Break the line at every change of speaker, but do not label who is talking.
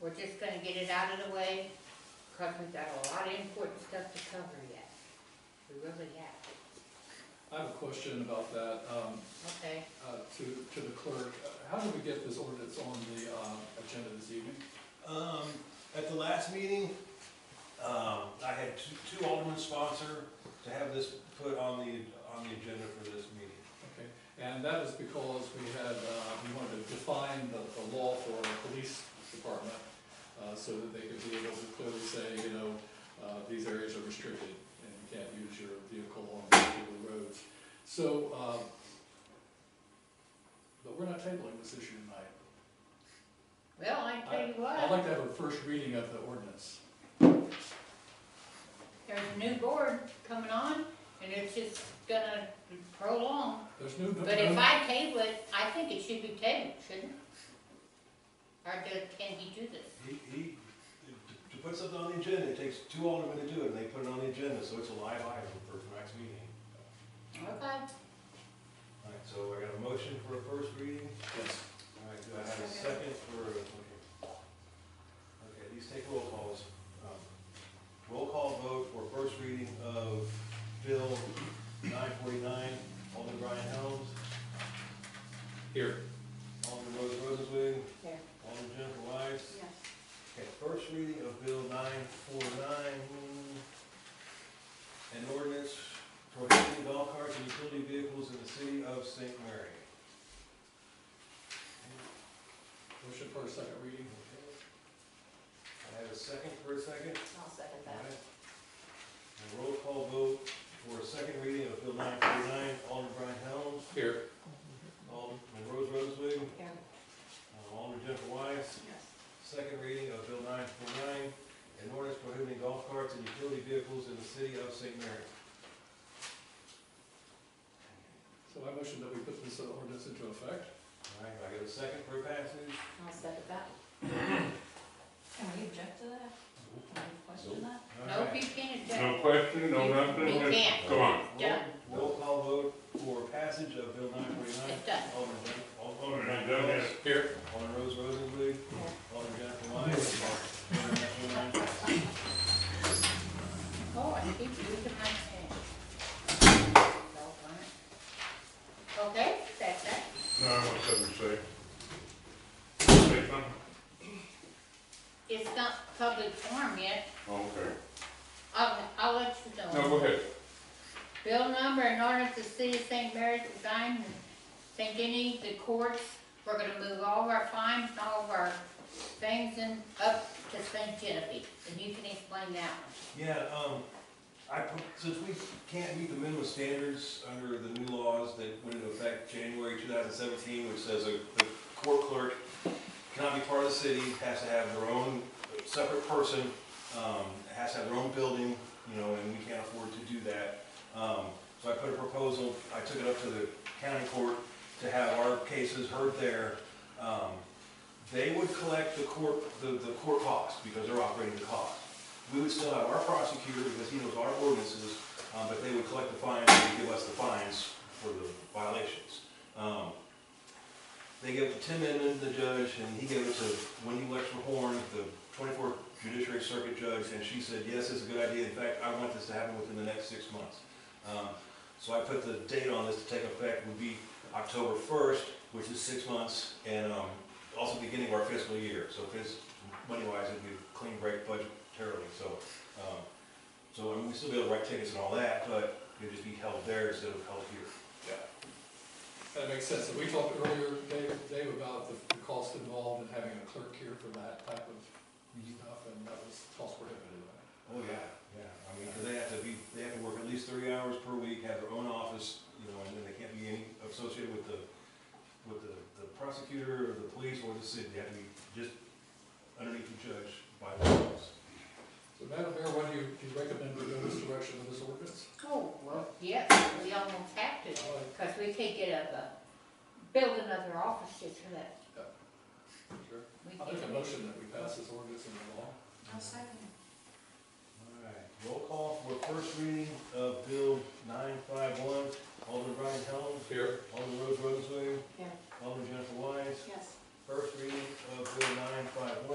We're just gonna get it out of the way, because we've got a lot of important stuff to cover yet. We really have,
I have a question about that, um,
okay?
uh, to, to the clerk. Uh, How did we get this ordinance on the, uh, agenda this evening?
Um, at the last meeting, um, I had two- two aldermen sponsor to have this put on the, on the agenda for this meeting.
Okay, and that is because we had, uh, we wanted to define the, the law for the police department, uh, so that they could be able to clearly say, you know, uh, these areas are restricted, and you can't use your vehicle on particular roads. So, uh, but we're not tabling this issue tonight.
Well, I tell you
I'd
what,
like to have a first reading of the ordinance.
there's a new board coming on, and it's just gonna prolong.
There's no.
But if I table it, I think it should be tabled, shouldn't it? Or do- can he do this?
He, he, to put something on the agenda, it takes two aldermen to do it, and they put it on the agenda, so it's a live item for the next meeting.
Okay,
All right, so I got a motion for a first reading,
Yes.
all right, do I have a second for, okay. Okay, these take roll calls. Um, Roll call vote for first reading of Bill nine forty-nine, Alderman Brian Helms,
Here.
Alderman Rose Rosenzweig,
Here.
Alderman Jennifer Weiss.
yes.
Okay, first reading of Bill nine four nine, an ordinance prohibiting golf carts and utility vehicles in the city of St. Mary.
Motion for a second reading.
I have a second for a second.
I'll second
All right. And roll call vote for a second reading of Bill nine forty-nine, Alderman Brian Helms,
Here.
Alderman Rose Rosenzweig,
Yeah.
uh, Alderman Jennifer Weiss.
Yes.
Second reading of Bill nine four nine, an ordinance prohibiting golf carts and utility vehicles in the city of St. Mary.
So I motion that we put this ordinance into effect.
All right, I got a second for passage.
I'll second that. Can we object to that? Can we question that?
All
No,
right.
he can't
No
do it.
question, no nothing,
We
just
can't.
come on.
Roll- Roll call vote for passage of Bill nine forty-nine.
It's done.
Alderman, Jen- Al- Alderman
Alderman
Alderman
Jones.
Jones.
Here.
Alderman Rose Rosenbluth. Alderman Jennifer Wise. Alderman Matthew Ryan.
Oh, I keep losing my pen. Well, darn it. Okay, that's that.
No, I want something to say. Say something.
It's not public forum yet.
Oh, Okay.
I'll, I'll let you know.
No, go ahead.
Bill number in order to City of St. Mary's design and St. Denis, the courts, we're gonna move all of our fines and all of our things in, up to St. Genevieve, and you can explain that one.
Yeah, um, I, put- since we can't meet the minimum standards under the new laws that went into effect January two thousand seventeen, which says a, the court clerk cannot be part of the city, has to have their own separate person, um, has to have their own building, you know, and we can't afford to do that. Um, so I put a proposal, I took it up to the county court to have our cases heard there. Um, they would collect the court, the, the court costs, because they're operating the cost. We would still have our prosecutor, because he knows our ordinances, um, but they would collect the fines and give us the fines for the violations. Um, They gave it to Tim Edmond, the judge, and he gave it to Wendy Wexler Horn, the twenty-fourth Judiciary Circuit Judge, and she said, yes, it's a good idea, in fact, I want this to happen within the next six months. Um, So I put the date on this to take effect would be October first, which is six months, and, um, also beginning of our fiscal year, so it's, money-wise, it'd be a clean break budgetarily, so, um, so, I mean, we still be able to write tickets and all that, but it'd just be held there instead of held here.
That makes sense. And we talked earlier, Dave, Dave, about the the cost involved in having a clerk here for that type of stuff, and that was cost prohibitive. right?
Oh, yeah, yeah, I mean, 'cause they have to be, they have to work at least three hours per week, have their own office, you know, and then they can't be any, associated with the, with the the prosecutor, or the police, or the city, they have to be just underneath the judge by themselves.
So Madam Mayor, why do you, do you recommend we go this direction with this ordinance?
Oh, well, yes, we almost have to, because we can't get a, uh, build another office just for that.
Sure.
We
I'll make a
can't.
motion that we pass this ordinance into law.
I'll second it.
All right, roll call for first reading of Bill nine five one, Alderman Brian Helms,
Here.
Alderman Rose Rosenzweig,
Yeah.
Alderman Jennifer Wise,
Yes.
first reading of Bill nine five one.